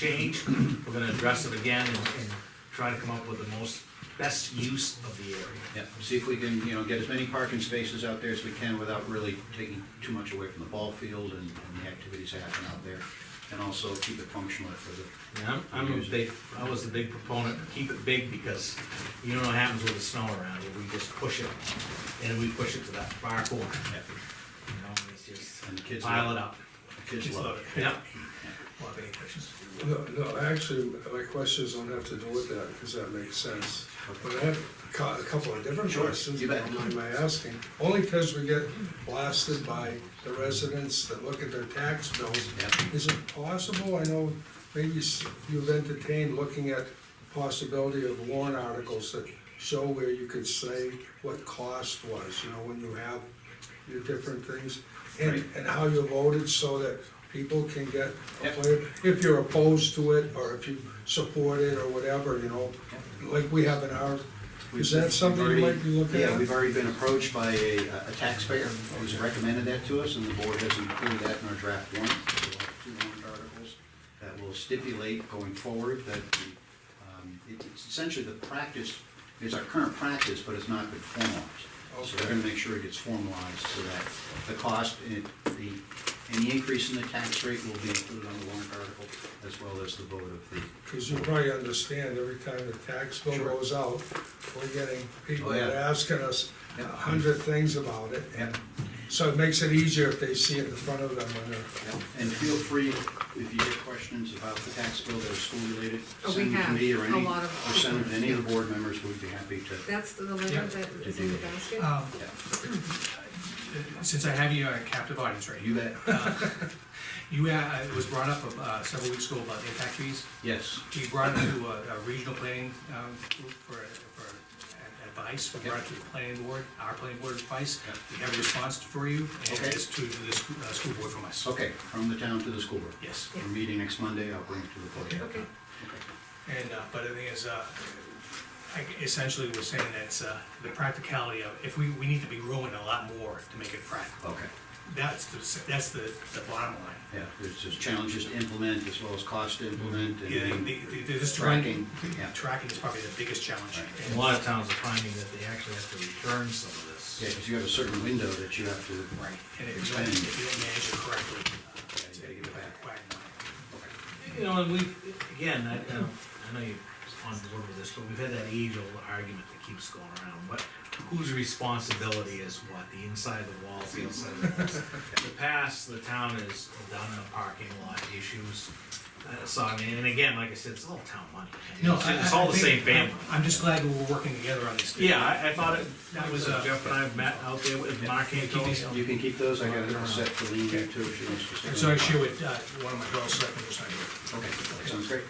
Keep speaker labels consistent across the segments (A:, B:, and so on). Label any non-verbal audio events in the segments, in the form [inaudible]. A: change, we're gonna address it again and, and try to come up with the most, best use of the area.
B: Yeah, see if we can, you know, get as many parking spaces out there as we can without really taking too much away from the ball field and, and the activities that happen out there. And also keep it functional for the,
A: And I'm, I'm a big, I was a big proponent, keep it big, because you don't know what happens with the snow around, here. we just push it, and we push it to that far corner, you know, and it's just
B: and the kids.
A: pile it up.
B: The kids love it.
A: Yeah,
C: Bob, any questions?
D: No, no, actually, my questions don't have to do with that, because that makes sense. But I have ca- a couple of different
B: Sure,
D: questions,
B: you
D: if you
B: bet.
D: don't mind my asking. Only because we get blasted by the residents that look at their tax bills.
B: Yeah.
D: Is it possible, I know maybe s- you've entertained looking at the possibility of warrant articles that show where you could say what cost was, you know, when you have your different things, and, and how you voted so that people can get a
B: Yep.
D: flavor, if you're opposed to it, or if you support it, or whatever, you know, like we have in our, is that something you might be looking
B: Yeah, we've
D: at?
B: already been approached by a, a taxpayer who's recommended that to us, and the board has included that in our draft warrant. So we'll have Two warrant articles that will stipulate going forward that, the, um, it- it's essentially the practice, is our current practice, but it's not been formalized. So we're
D: Okay.
B: gonna make sure it gets formalized so that the cost and it- the, any increase in the tax rate will be included on the warrant article, as well as the vote of the
D: Cause you probably understand, every time the tax bill
B: Sure.
D: goes out, we're getting people
B: Oh, yeah.
D: that are asking us a
B: Yeah.
D: hundred things about it. and So it makes it easier if they see it in front of them when they're.
B: Yeah, And feel free, if you get questions about the tax bill that are school-related,
E: Oh, we
B: send them to
E: have
B: me or
E: a
B: any,
E: lot
B: or
E: of-
B: send them to any of the board members, we'd be happy to.
E: That's the letter that is in the basket?
F: Oh.
C: Um,
B: Yeah,
C: since I have you on a captive audience right
B: You
C: here,
B: bet,
C: you, uh, it was brought up, uh, several weeks ago about impact fees.
B: yes,
C: We brought it to a, a regional planning, um, group for, for advice, we brought it to the planning board, our planning board advice.
B: Yep.
C: We have a response for you, and
B: Okay.
C: it's to the school, uh, school board from us.
B: okay, from the town to the school board.
C: Yes,
B: We're meeting next Monday, I'll bring it to the board.
E: Okay,
C: and, uh, but the thing is, uh, I- essentially we're saying that's, uh, the practicality of, if we, we need to be growing a lot more to make it practical.
B: Okay,
C: That's the, that's the, the bottom line.
B: yeah, there's just challenges to implement as well as cost to implement and.
C: Yeah, the, the, the, this
B: Tracking,
C: tracking,
B: yeah.
C: tracking is probably the biggest challenge.
B: Right.
A: and a lot of towns are finding that they actually have to return some of this.
B: Yeah, because you have a certain window that you have to.
C: Right, and if you don't, if you don't manage it correctly, uh, it's gonna get back, back.
A: You know, and we, again, I, I know- I know you're on board with this, but we've had that age-old argument that keeps going around, what, whose responsibility is what, the inside of the walls, the outside of the walls? In the past, the town has done the parking lot issues, uh, so, I mean, and again, like I said, it's all town money. I mean,
C: No,
A: it's-
C: I,
A: It's all the same family.
C: I'm just glad we were working together on this.
A: Yeah, I, I thought it, that
C: That
A: was,
C: was, uh,
A: Jeff and I met out there with Mark
C: Yeah.
A: Anthony.
B: You can keep those, I got a set for Lean here too, if she wants to stick.
C: So I
B: them.
C: share with, uh, one of my girls, so I can just,
B: Okay, that sounds great.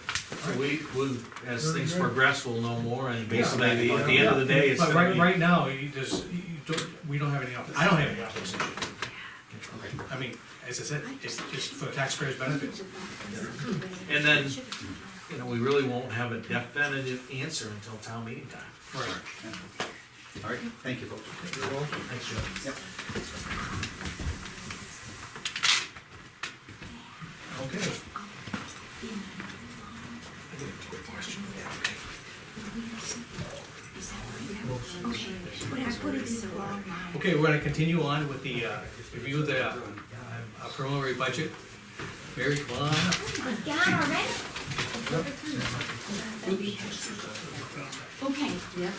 A: We, we, as
D: Very
A: things
D: good.
A: progress, we'll know more, and basically,
B: Yeah.
A: at the- at the end of the day, it's.
C: But
A: gonna
C: right,
A: be-
C: right now, you just, you don't, we don't have any options, I don't have any options.
B: Okay.
C: I mean, as I said, it's just for taxpayers' benefit.
A: And then, you know, we really won't have a definitive answer until town meeting time.
C: Right.
B: All right, thank you folks.
D: You're welcome.
A: Thanks, Joe.
C: Okay.
G: But I put it in the wrong line.
C: Okay, we're gonna continue on with the, uh, review of the uh, uh, preliminary budget. Mary, come on up.
G: Down already? Okay,
E: yeah,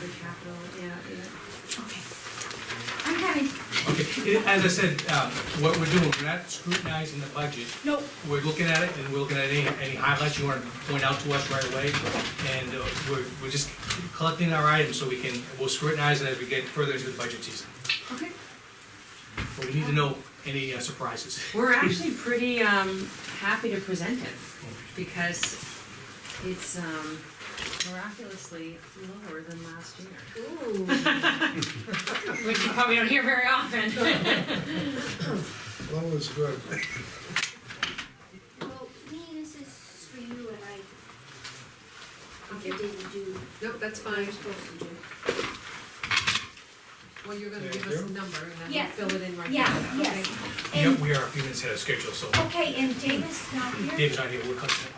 E: the capital, yeah, yeah.
G: okay. I'm having,
C: Okay, it- as I said, um, what we're doing, we're not scrutinizing the budget.
G: no,
C: We're looking at it, and we're looking at any, any highlights you wanna point out to us right away. And uh, we're, we're just collecting our items so we can, we'll scrutinize it as we get further into the budget season.
G: okay.
C: But we need to know any uh, surprises.
F: We're actually pretty um, happy to present it because it's um, miraculously lower than last year,
E: [laughs] Ooh,
F: which you probably don't hear very
E: [laughs]
F: often.
D: Low is good.
G: Well, me, this is for you and I, I didn't do
E: no, that's
G: what
E: fine,
G: you're supposed to do.
E: well, you're gonna
D: Thank
E: give us
D: you.
E: a number and then we'll
G: Yes.
E: fill it in right now.
G: Yeah, yes.
C: Yeah,
G: And,
C: we are a few minutes ahead of schedule, so
G: okay, and David's not here?
C: David's not here, we're collecting.